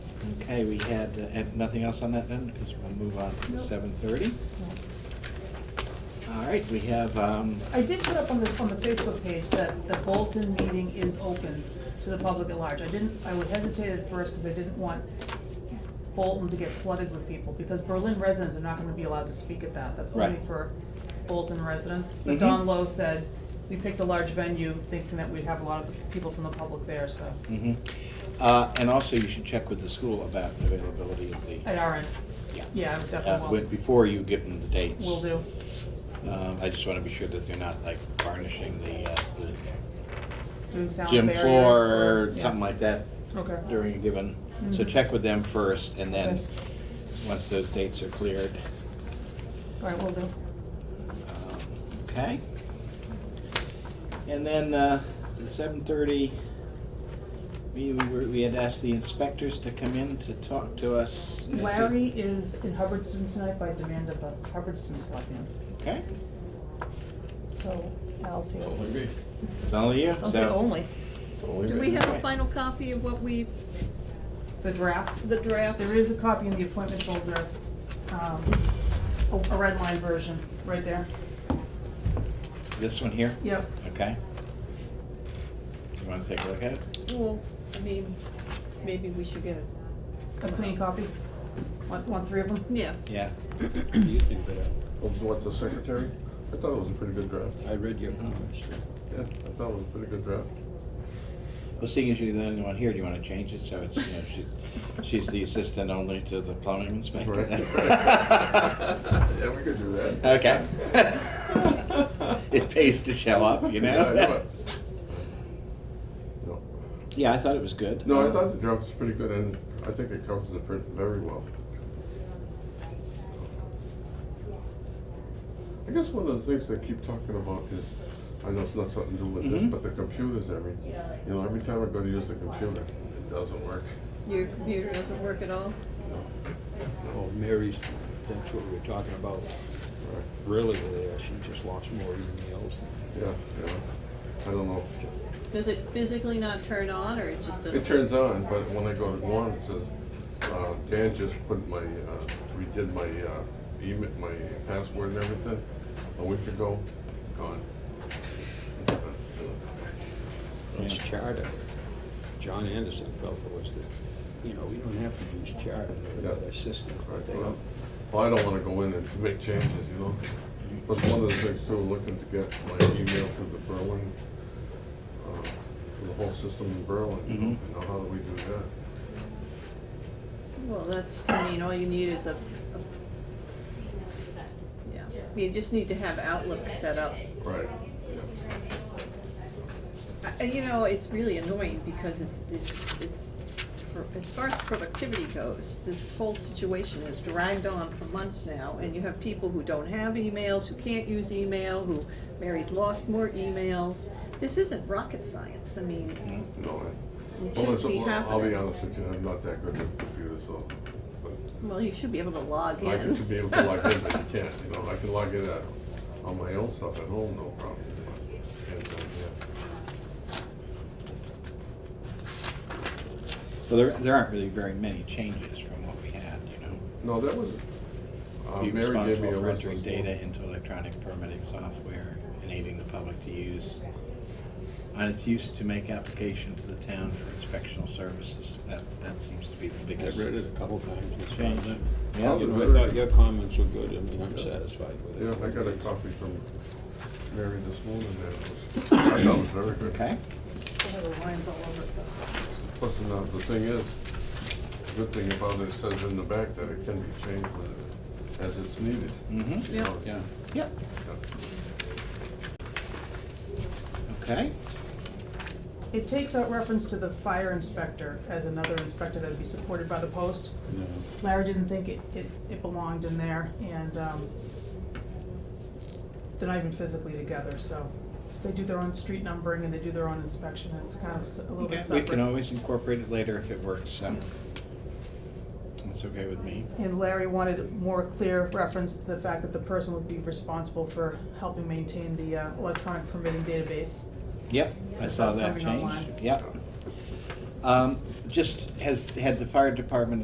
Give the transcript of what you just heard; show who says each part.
Speaker 1: Okay, we had, uh, had nothing else on that then, because we'll move on to
Speaker 2: Nope.
Speaker 1: seven thirty. All right, we have, um,
Speaker 2: I did put up on the, on the Facebook page that the Bolton meeting is open to the public at large. I didn't, I would hesitate at first because I didn't want Bolton to get flooded with people, because Berlin residents are not gonna be allowed to speak at that. That's only
Speaker 1: Right.
Speaker 2: for Bolton residents.
Speaker 1: Mhm.
Speaker 2: But Don Lowe said, we picked a large venue thinking that we'd have a lot of people from the public there, so,
Speaker 1: mhm. uh, and also you should check with the school about the availability of the,
Speaker 2: at our end,
Speaker 1: yeah.
Speaker 2: yeah, I
Speaker 1: Uh, when-
Speaker 2: definitely
Speaker 1: Before you give them the dates.
Speaker 2: will, will do.
Speaker 1: Um, I just want to be sure that they're not like varnishing the, uh, the
Speaker 2: Doing sound
Speaker 1: gym
Speaker 2: barriers
Speaker 1: floor
Speaker 2: or-
Speaker 1: or
Speaker 2: yeah.
Speaker 1: something like that
Speaker 2: Okay.
Speaker 1: during a given. So
Speaker 2: Mhm.
Speaker 1: check with them first, and then,
Speaker 2: Okay.
Speaker 1: once those dates are cleared,
Speaker 2: All right, will do.
Speaker 1: Um, Okay. And then uh, the seven thirty, we, we were- we had asked the inspectors to come in to talk to us. That's it.
Speaker 2: Larry is in Hubbardston tonight by demand of the Hubbardston Selectmen,
Speaker 1: Okay,
Speaker 2: so Al's here.
Speaker 3: Only me.
Speaker 1: it's only you,
Speaker 2: I'll say
Speaker 1: so.
Speaker 2: only,
Speaker 3: Only
Speaker 4: Do
Speaker 3: me.
Speaker 4: we have a final copy of what we,
Speaker 2: the draft.
Speaker 4: the draft?
Speaker 2: There is a copy in the appointment folder, um, a a red line version, right there.
Speaker 1: This one here?
Speaker 2: Yep.
Speaker 1: Okay. You wanna take a look at it?
Speaker 4: Well, I mean, maybe we should get a,
Speaker 2: A clean copy. Want, want three of them?
Speaker 4: yeah.
Speaker 1: Yeah.
Speaker 5: You think that,
Speaker 3: Of what, the secretary? I thought it was a pretty good draft.
Speaker 5: I read your comments.
Speaker 3: Yeah, I thought it was a pretty good draft.
Speaker 1: Well, seeing as you're the only one here, do you wanna change it so it's, you know, she, she's the assistant only to the plumbing inspector?
Speaker 3: Right. Yeah, we could do that.
Speaker 1: Okay. It pays to show up, you
Speaker 3: Yeah, I know
Speaker 1: know?
Speaker 3: it. No.
Speaker 1: Yeah, I thought it was good.
Speaker 3: No, I thought the draft was pretty good and I think it covers the print very well. I guess one of the things they keep talking about is, I know it's not something to do with this,
Speaker 1: Mhm.
Speaker 3: but the computers every, you know, every time I go to use the computer, it doesn't work.
Speaker 4: Your computer doesn't work at all?
Speaker 3: No.
Speaker 5: Oh, Mary's, that's what we were talking about
Speaker 3: Right.
Speaker 5: really there. She just lost more emails.
Speaker 3: Yeah, yeah. I don't know.
Speaker 4: Does it physically not turn on, or it just doesn't?
Speaker 3: It turns on, but when I go to go on, it says, uh, Dan just put my, uh, redid my, uh, email, my password and everything a week ago, gone.
Speaker 5: It's charter. John Anderson felt it was the, you know, we don't have to use charter. They got a system.
Speaker 3: Right,
Speaker 5: They
Speaker 3: well,
Speaker 5: don't-
Speaker 3: well, I don't wanna go in and make changes, you know? But one of the things too, looking to get my email from the Berlin, uh, for the whole system in Berlin, you know,
Speaker 1: Mhm.
Speaker 3: you know, how do we do that?
Speaker 4: Well, that's, I mean, all you need is a, a- yeah, you just need to have Outlook set up.
Speaker 3: Right,
Speaker 4: I- And you know, it's really annoying because it's, it's, it's, for, as far as productivity goes, this whole situation has dragged on for months now, and you have people who don't have emails, who can't use email, who, Mary's lost more emails. This isn't rocket science, I mean,
Speaker 1: Mm.
Speaker 3: you know, I,
Speaker 4: it
Speaker 3: Well,
Speaker 4: should
Speaker 3: it's-
Speaker 4: be
Speaker 3: well, I'll be
Speaker 4: happening.
Speaker 3: honest with you, I'm not that good with computers, so, but
Speaker 4: Well, you should be able to log in.
Speaker 3: I could be able to log in, but you can't, you know, I can log in at, on my own stuff at home, no problem. uh, but I can't do it
Speaker 1: Well, there, there aren't really very many changes from what we had, you know?
Speaker 3: yet. No, that was, uh,
Speaker 1: Be
Speaker 3: Mary gave
Speaker 1: responsible
Speaker 3: me a
Speaker 1: for
Speaker 3: list.
Speaker 1: entering
Speaker 3: this
Speaker 1: data
Speaker 3: morning.
Speaker 1: into electronic permitting software, enabling the public to use on its use to make application to the town for inspectional services. That, that seems to be the
Speaker 5: I
Speaker 1: biggest.
Speaker 5: read it a couple times. It's fine.
Speaker 1: Yeah.
Speaker 5: You know, I thought your comments were good. I mean, I'm satisfied with it.
Speaker 3: Yeah, I got a copy from Mary this morning, that was, I thought it was very good.
Speaker 1: Okay,
Speaker 2: Still have the lines all over it though.
Speaker 3: Plus, and, uh, the thing is, the good thing about it, it says in the back that it can be changed with- as it's needed.
Speaker 1: mm-hmm,
Speaker 3: you
Speaker 4: Yeah.
Speaker 3: know,
Speaker 5: Yeah.
Speaker 1: yep,
Speaker 3: yeah.
Speaker 1: okay.
Speaker 2: It takes out reference to the fire inspector as another inspector that would be supported by the post.
Speaker 5: Yeah.
Speaker 2: Larry didn't think it, it, it belonged in there, and, um, they're not even physically together, so they do their own street numbering and they do their own inspection, it's kind of s- a little
Speaker 1: Okay,
Speaker 2: bit
Speaker 1: We
Speaker 2: separate.
Speaker 1: can always incorporate it later if it works, so that's okay with me.
Speaker 2: And Larry wanted more clear reference to the fact that the person would be responsible for helping maintain the uh, electronic permitting database.
Speaker 1: Yep, I
Speaker 2: Since
Speaker 1: saw
Speaker 2: that's
Speaker 1: that
Speaker 2: coming
Speaker 1: change,
Speaker 2: online.
Speaker 1: yep. Um, Just, has, had the fire department